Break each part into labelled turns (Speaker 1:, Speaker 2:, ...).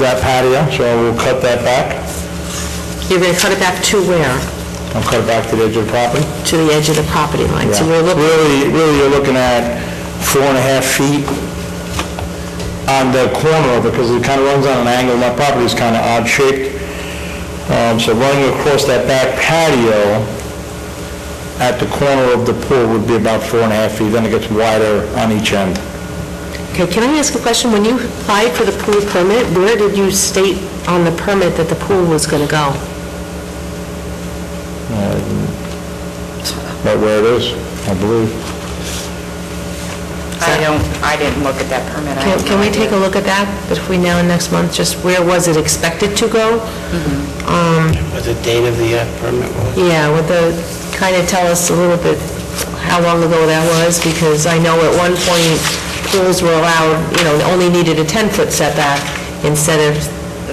Speaker 1: that patio, so we'll cut that back.
Speaker 2: You're going to cut it back to where?
Speaker 1: I'll cut it back to the edge of the property.
Speaker 2: To the edge of the property line. So we're looking,
Speaker 1: Really, really, you're looking at four and a half feet on the corner of it, because it kind of runs on an angle, my property is kind of odd shaped. Um, So running across that back patio at the corner of the pool would be about four and a half feet, then it gets wider on each end.
Speaker 2: okay, can I ask a question? When you applied for the pool permit, where did you state on the permit that the pool was going to go?
Speaker 1: Right Uh, where it is, I believe.
Speaker 3: I don't, I didn't look at that permit. I
Speaker 2: Can
Speaker 3: have
Speaker 2: can
Speaker 3: no
Speaker 2: we take a
Speaker 3: idea.
Speaker 2: look at that between now and next month? Just where was it expected to go?
Speaker 4: What the date of the uh, permit was?
Speaker 2: Yeah, would the, kind of tell us a little bit how long ago that was? Because I know at one point pools were allowed, you know, only needed a 10-foot setback instead of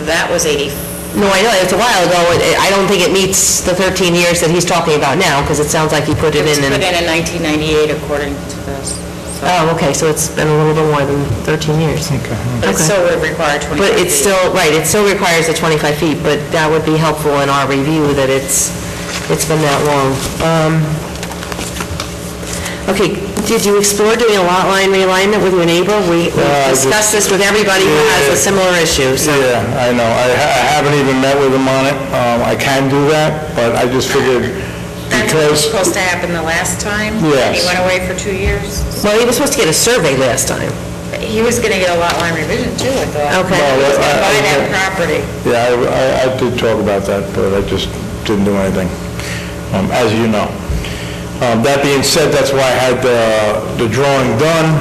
Speaker 3: That was 80,
Speaker 2: No, I know, it's a while ago, It- it- I don't think it meets the 13 years that he's talking about now, because it sounds like he put
Speaker 3: it
Speaker 2: it
Speaker 3: was
Speaker 2: in
Speaker 3: put in
Speaker 2: and...
Speaker 3: in 1998 according to this. so-
Speaker 2: Oh, okay, so it's been a little bit more than 13 years.
Speaker 1: Okay.
Speaker 3: But it
Speaker 2: okay.
Speaker 3: still would require 25
Speaker 2: But it's
Speaker 3: feet.
Speaker 2: still, right, it still requires the 25 feet, but that would be helpful in our review that it's, it's been that long. Um, Okay, did you explore doing a lot line realignment with your neighbor? We we
Speaker 1: Uh, I just-
Speaker 2: discussed this with everybody who has a similar issue, so...
Speaker 1: Yeah, I know, I ha- I haven't even met with him on it, Um, I can do that, but I just figured
Speaker 3: That's what was
Speaker 1: because...
Speaker 3: supposed to happen the last time?
Speaker 1: Yes.
Speaker 3: He went away for two years.
Speaker 2: Well, he was supposed to get a survey last time.
Speaker 3: He was going to get a lot line revision too, I thought.
Speaker 2: Okay.
Speaker 3: He was
Speaker 1: Well,
Speaker 3: going to
Speaker 1: uh, I-
Speaker 3: buy
Speaker 1: I-
Speaker 3: that property.
Speaker 1: Yeah, I- I, I did talk about that, but I just didn't do anything, um, as you know. Um, that being said, that's why I had the, the drawing done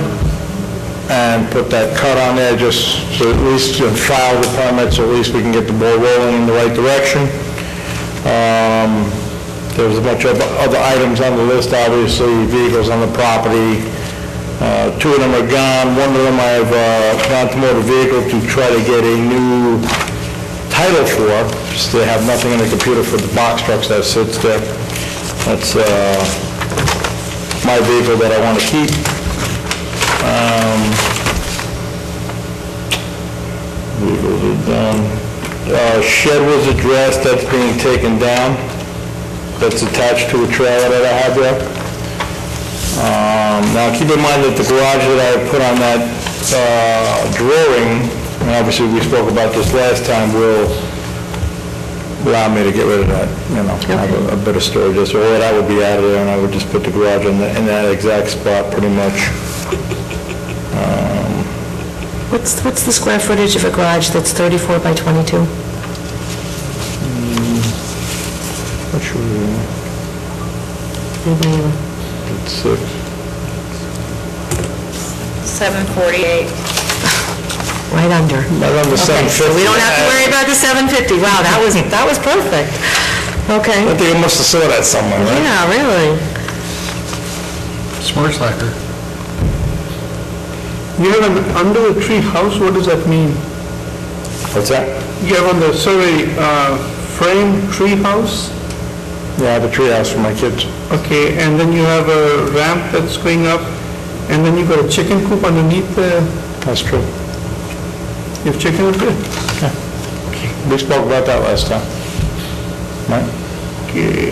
Speaker 1: and put that cut on there, just so at least you file the permits, at least we can get the ball rolling in the right direction. Um, there was a bunch of other items on the list, obviously, vehicles on the property. Uh, Two of them are gone, one of them I've uh, gone to motor vehicle to try to get a new title for, just they have nothing in the computer for the box trucks that sits there. That's uh, my vehicle that I want to keep. Um, Vehicles are done. Uh, Shed was addressed, that's being taken down. That's attached to a trailer that I have there. Um, Now, keep in mind that the garage that I put on that uh, drawing, and obviously we spoke about this last time, will allow me to get rid of that, you know, have a- a bit of storage, so all that would be out of there, and I would just put the garage in the- in that exact spot, pretty much.
Speaker 2: What's, what's the square footage of a garage that's 34 by 22?
Speaker 1: What should we-
Speaker 2: Anybody-
Speaker 1: It's uh,
Speaker 3: 748.
Speaker 2: Right under.
Speaker 1: right on the
Speaker 2: Okay, so
Speaker 1: 750.
Speaker 2: we don't have to worry about the 750. Wow, that was, that was perfect.
Speaker 1: I
Speaker 2: Okay,
Speaker 1: think I must have saw that somewhere, right?
Speaker 2: yeah, really.
Speaker 5: Smart slacker. You have an under a tree house, what does that mean?
Speaker 1: What's that?
Speaker 5: You have on the survey, uh, frame tree house,
Speaker 1: Yeah, I have a treehouse for my kids.
Speaker 5: okay, and then you have a ramp that's going up, and then you got a chicken coop underneath the,
Speaker 1: That's true.
Speaker 5: you have chicken up there?
Speaker 1: We spoke about that last time. Right?
Speaker 5: Okay,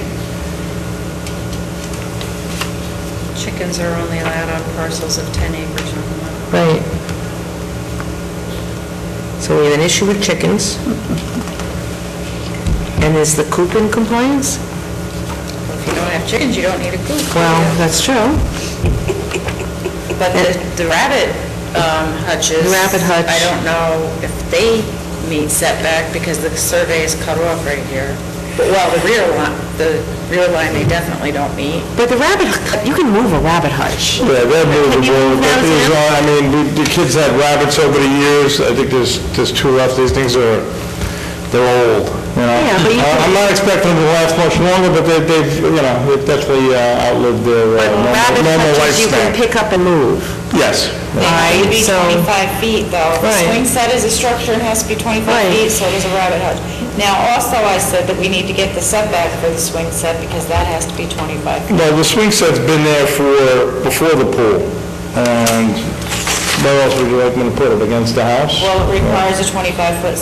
Speaker 3: Chickens are only allowed on parcels of 10 acres or more.
Speaker 2: Right. So we have an issue with chickens. And is the coop in compliance?
Speaker 3: If you don't have chickens, you don't need a coop.
Speaker 2: Well, that's true.
Speaker 3: But the the rabbit um, hutches...
Speaker 2: The rabbit hutch.
Speaker 3: I don't know if they meet setback because the survey is cut off right here. But well, the rear line, the rear line, they definitely don't meet.
Speaker 2: But the rabbit, hut- you can move a rabbit hutch.
Speaker 1: Yeah, they're movable, but
Speaker 2: Have you
Speaker 1: these
Speaker 2: moved
Speaker 1: are, I mean, we- the kids had rabbits over the years, I think there's, there's two left, these things are, they're old, you know?
Speaker 2: Yeah, but you
Speaker 1: I-
Speaker 2: can-
Speaker 1: I'm not expecting them to last much longer, but they- they've, you know, they've definitely uh, outlived their uh, normal
Speaker 2: Rabbit
Speaker 1: normal
Speaker 2: hutches you
Speaker 1: lifespan.
Speaker 2: can pick up and move.
Speaker 1: Yes.
Speaker 3: They have to be
Speaker 2: Right, so-
Speaker 3: 25 feet, though. The
Speaker 2: Right.
Speaker 3: swing set is a structure and has to be 25
Speaker 2: Right.
Speaker 3: feet, so does a rabbit hutch. Now, also, I said that we need to get the setback for the swing set because that has to be 25 feet.
Speaker 1: Well, the swing set's been there for, before the pool, and where else would you like me to put it, against the house?
Speaker 3: Well, it requires a 25-foot